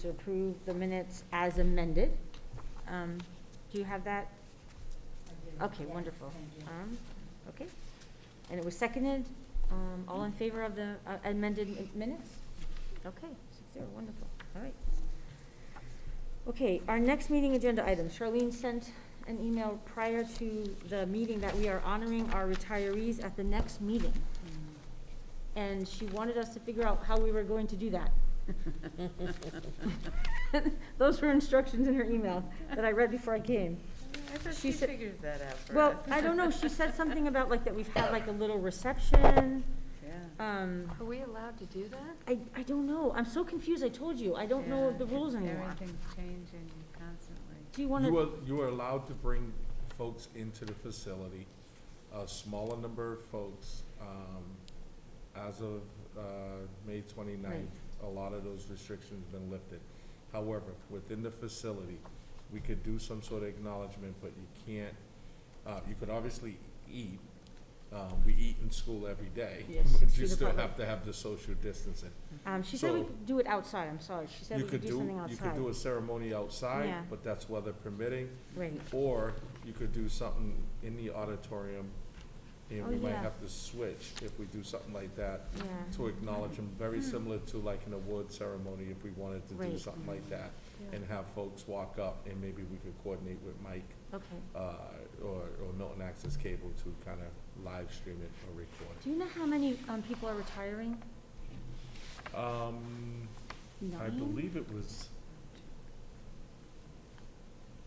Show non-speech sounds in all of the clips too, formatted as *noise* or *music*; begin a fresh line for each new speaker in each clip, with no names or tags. to approve the minutes as amended. Um, Do you have that? Okay, wonderful. Um, Okay. And it was seconded, um, all in favor of the uh, amended mi- minutes? Okay, six zero, wonderful, all right. Okay, our next meeting agenda item, Charlene sent an email prior to the meeting that we are honoring our retirees at the next meeting. And she wanted us to figure out how we were going to do that. Those were instructions in her email that I read before I came.
I thought
She
she
said-
figures that out for us.
Well, I don't know, she
*laughs*
said something about like that we've had like a little reception,
Yeah.
um,
Are we allowed to do that?
I, I don't know, I'm so confused, I told you, I don't know
Yeah.
the rules anymore.
Everything's changing constantly.
Do you wanna?
You are, you are allowed to bring folks into the facility, a smaller number of folks. um, As of uh, May 29th, a lot of those restrictions have been lifted. However, within the facility, we could do some sort of acknowledgement, but you can't, uh, you could obviously eat. Um, We eat in school every day. *laughs*
Yes, six
but You
feet
still
apart.
have to have the social distancing.
Um, she said we
So-
could do it outside, I'm sorry, she said
You
we could do something outside.
You could do a ceremony outside,
Yeah.
but that's weather permitting.
Right,
Or you could do something in the auditorium, and we
Oh,
might
yeah. Mm-hmm.
have to switch if we do something like that
yeah,
to acknowledge them, very similar to like an award ceremony if we wanted to do
Mm-hmm. Right.
something like that.
Yeah.
And have folks walk up and maybe we could coordinate with Mike,
okay.
uh, or, or Milton Access Cable to kind of live stream it or record it.
Do you know how many, um, people are retiring?
Um, I
Nine?
believe it was,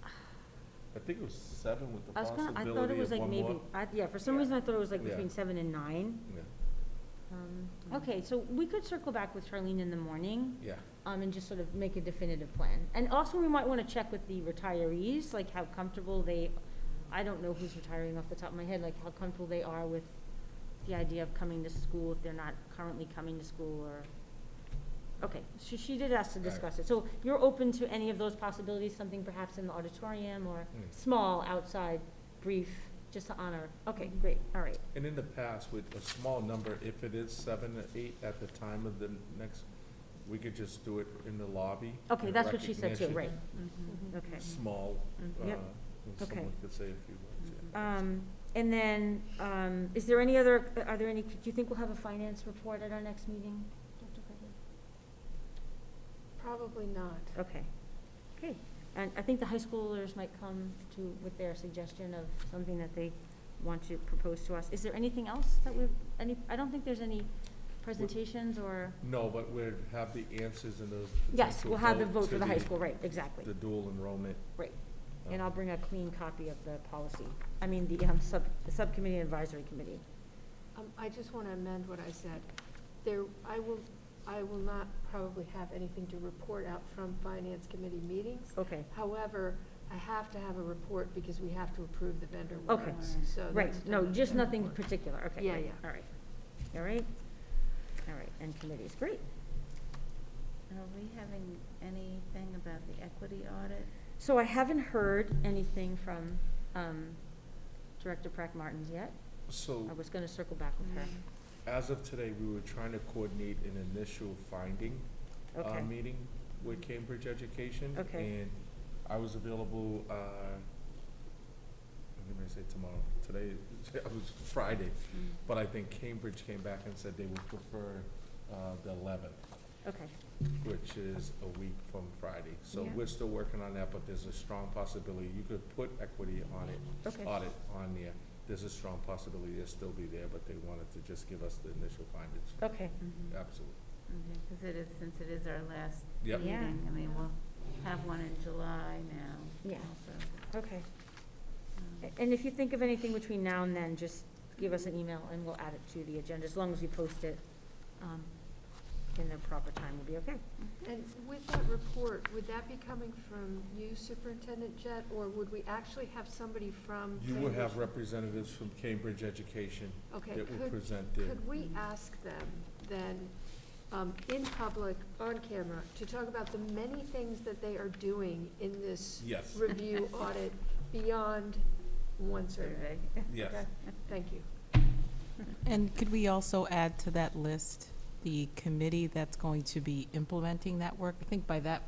I think it was seven with the
I was gonna, I
possibility of one more.
thought it was like maybe, I, yeah, for some
Yeah.
reason I thought it was like
Yeah.
between seven and nine.
Yeah,
Um, okay, so we could circle back with Charlene in the morning.
yeah.
um, and just sort of make a definitive plan. And also, we might want to check with the retirees, like how comfortable they, I don't know who's retiring off the top of my head, like how comfortable they are with the idea of coming to school if they're not currently coming to school or, okay, she, she did ask to
Right.
discuss it. So you're open to any of those possibilities, something perhaps in the auditorium or
Mm.
small, outside, brief, just to honor? Okay, great, all right,
And in the past, with a small number, if it is seven or eight at the time of the next, we could just do it in the lobby.
okay,
in
that's what she said too,
recognition.
right,
Mhm.
okay.
Small, uh,
Yep.
and
Okay.
someone could say a few words,
Mm-hmm.
yeah.
Um, and then, um, is there any other, are there any, do you think we'll have a finance report at our next meeting? Dr. Gregory?
Probably not.
Okay, great. And I think the high schoolers might come to, with their suggestion of something that they want to propose to us. Is there anything else that we've, any, I don't think there's any presentations or,
No, but we'd have the answers and the.
yes,
potential
we'll have the vote
to
for the high school, right, exactly.
The dual enrollment.
Right.
uh,
And I'll bring a clean copy of the policy, I mean, the, um, sub, the subcommittee advisory committee.
Um, I just want to amend what I said. There, I will, I will not probably have anything to report out from finance committee meetings.
Okay,
However, I have to have a report because we have to approve the vendor
Okay.
warrants, so.
Right,
that's
no,
done.
just nothing in particular, okay.
Yeah,
great,
yeah.
All right, all right, all right, and committees, great.
Are we having anything about the equity audit?
So I haven't heard anything from um, Director Prack Martins yet.
So
I was gonna circle back with her.
Mm-hmm.
as of today, we were trying to coordinate an initial finding uh,
Okay,
meeting with Cambridge Education.
Okay.
And I was available, uh, I'm gonna say tomorrow, today, *laughs* it was Friday, but I think Cambridge came back and said they would prefer, uh, the eleventh,
okay,
which is a week from Friday. So
Yeah.
we're still working on that, but there's a strong possibility, you could put equity on it,
okay,
audit on there. There's a strong possibility it'll still be there, but they wanted to just give us the initial findings,
okay.
Mhm.
absolutely.
Okay, because it is, since it is our last
Yep.
meeting,
Yeah.
I mean, we'll have one in July now.
Yeah.
also.
Okay.
Um,
A- And if you think of anything between now and then, just give us an email and we'll add it to the agenda, as long as we post it um, in the proper time, we'll be okay.
And with that report, would that be coming from you, Superintendent Jett, or would we actually have somebody from?
You will have
Cambridge?
representatives from Cambridge Education
Okay,
that will
could-
present their
Could we ask them then, um, in public, on camera, to talk about the many things that they are doing in this
Yes,
review audit beyond one survey?
Survey.
yes.
Okay. Thank you.
And could we also add to that list the committee that's going to be implementing that work? I think by that